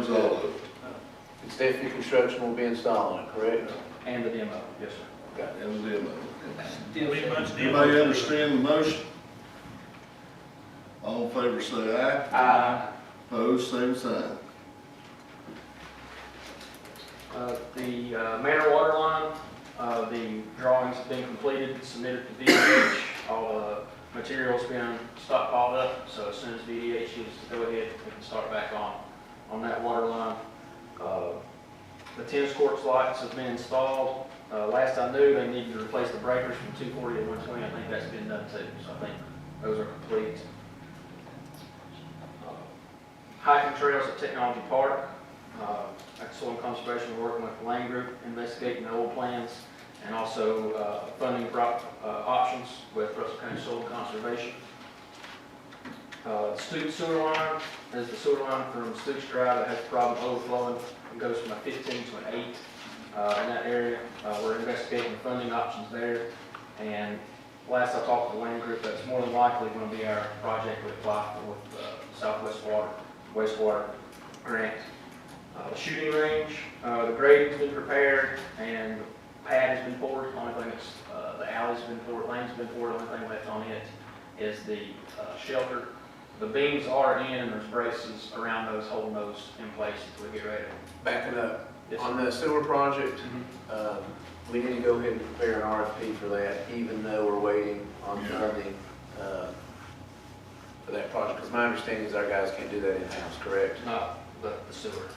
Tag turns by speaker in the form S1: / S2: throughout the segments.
S1: It's all
S2: that
S1: of it.
S2: the Safety Construction will be installing, correct?
S3: and the demo, yes, sir.
S1: And the demo.
S4: Pretty much did.
S1: Everybody understand the motion? All in favor, say aye.
S2: Aye.
S1: Opposed, same sign.
S3: Uh, The uh, Manor water line, uh, the drawings have been completed, submitted to DDH, all the materials been stockpiled up, so as soon as DDH is to go ahead, we can start back on, on that water line. Uh, The tennis courts lights have been installed, Uh, last I knew, they needed to replace the breakers from 240 to 120, I think that's been done too, so I think those are complete. Uh, Hiking trails at Technology Park, uh, like Soil and Conservation, we're working with the Land Group, investigating the old plans, and also uh, funding prop- uh, options with Russell County Soil and Conservation. Uh, Stoops sewer line, there's the sewer line from Stoops Drive that has a problem overflowing, it goes from a 15 to an 8 uh, in that area. Uh, We're investigating the funding options there, and last I talked to the Land Group, that's more than likely going to be our project we apply for with uh, Southwest Water, wastewater grant. Uh, the shooting range, uh, the grading's been prepared and the pad has been poured. The Only thing that's, uh, the alley's been poured, lane's been poured, the only thing left on it is the, uh, shelter. The beams are in and there's braces around those holding those in place until we get ready.
S2: Backing up,
S3: Yes, sir.
S2: on the sewer project,
S3: Mhm.
S2: um, we need to go ahead and prepare an RFP for that, even though we're waiting on
S1: Yeah.
S2: funding uh, for that project, because my understanding is our guys can't do that in-house, correct?
S3: Not the the sewer.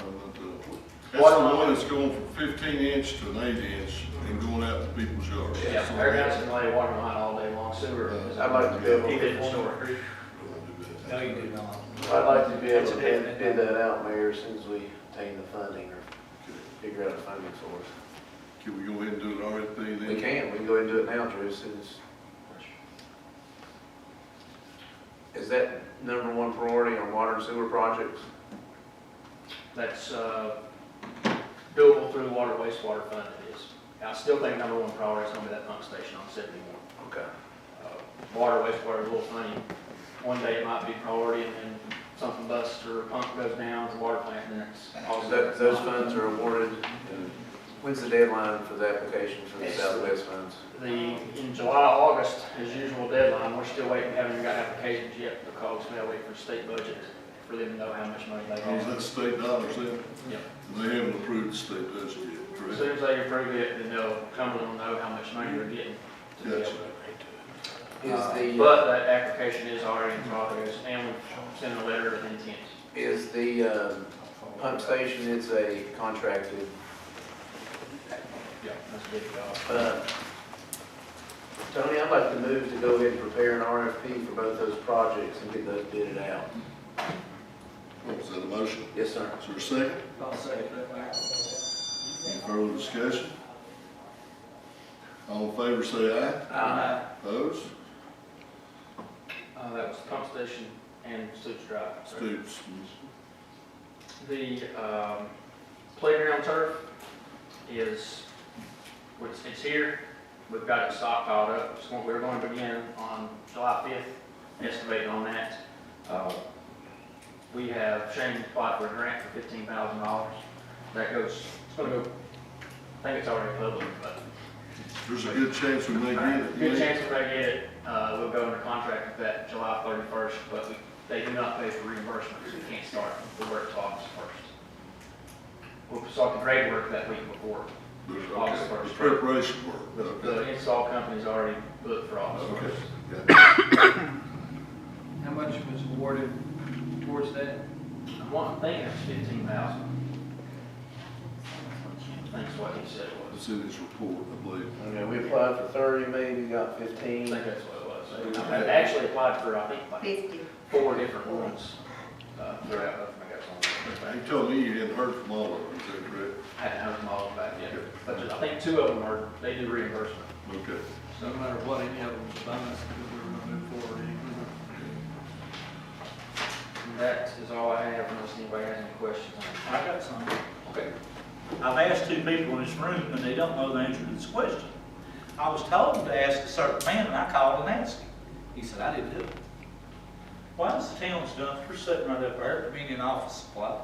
S1: I'm not doing it. That's the one that's going from fifteen inch to an eight inch and going out to people's yards.
S3: Yeah, they're going to lay water line all day long. Sewer is.
S2: I'd like to be able,
S3: He
S2: I'd
S3: didn't store it.
S4: No, you did not.
S2: like to be able to
S4: That's a definite.
S2: bid bid that out, Mayor, as soon as we obtain the funding or figure out a funding source.
S1: Can we go ahead and do an RFP then?
S2: We can, we can go ahead and do it now, Drew, as soon as. Is that number one priority on water and sewer projects?
S3: That's, uh, doable through water wastewater fund it is. I still think number one priority is going to be that pump station on seventy-one.
S2: Okay.
S3: uh, water, wastewater, a little funny. One day it might be priority and then something busts or a pump goes down, the water plant, and then it's. all-
S2: That- Those funds are awarded, and when's the deadline for the application for the
S3: It's-
S2: Southwest funds?
S3: The, in July, August, as usual deadline, we're still waiting, haven't got applications yet because we gotta wait for state budget for them to know how much money they
S1: Oh, is
S3: have.
S1: that state dollars then?
S3: Yep.
S1: They haven't approved the state budget yet,
S3: As
S1: correct?
S3: soon as they approve it, then they'll, Cumberland will know how much money they're getting to be able
S1: Gotcha.
S3: to. Uh,
S2: Is the,
S3: But that application is already in progress and we sent a letter of intent.
S2: is the um, pump station, it's a contracted,
S3: Yeah, that's a big job.
S2: uh, Tony, I'd like to move to go ahead and prepare an RFP for both those projects and get those bidded out.
S1: Is that a motion?
S2: Yes, sir.
S1: Is there a second?
S4: I'll say it.
S1: Any further discussion? All in favor, say aye.
S4: Aye.
S1: Opposed?
S3: Uh, that was pump station and sewage drive. sorry.
S1: Stoops.
S3: The, um, playground turf is, it's, it's here. We've got it stockpiled up. It's going, we're going to begin on July fifth, excavating on that. Uh, We have Shane applied for a grant for fifteen thousand dollars. That goes, it's gonna go, I think it's already public, but
S1: There's a good chance we may get it.
S3: Good chance if I get it, uh, we'll go under contract with that July thirty-first, but we, they do not pay for reimbursement, so we can't start the work till August first. We'll start the grade work that week before,
S1: There's-
S3: August
S1: okay,
S3: first.
S1: Preparation
S3: the,
S1: work.
S3: the install company's already booked for August
S1: Okay.
S3: first.
S1: yeah.
S4: How much was awarded towards that?
S3: I'm wanting, thinking it's fifteen thousand. That's what he said it was,
S1: It's in his report, I believe.
S2: Okay, we applied for thirty, maybe got
S3: I
S2: fifteen.
S3: think that's what it was. I actually applied for, I think, like
S5: Fifty.
S3: four different ones, uh, throughout, I got some.
S1: He told me you hadn't heard from all of them, is that correct?
S3: hadn't heard them all back yet, but I think two of them are, they do reimbursement.
S1: Okay.
S4: So no matter what, any of them was a bonus because we were gonna move forward. anyway.
S3: And That is all I have, unless anybody has any questions.
S6: I got some.
S3: Okay.
S6: I've asked two people in this room, and they don't know the answer to this question. I was told to ask a certain man, and I called and asked him. He said, I didn't do it. Why is the town's dumpster sitting right up there at the Dominion Office Supply?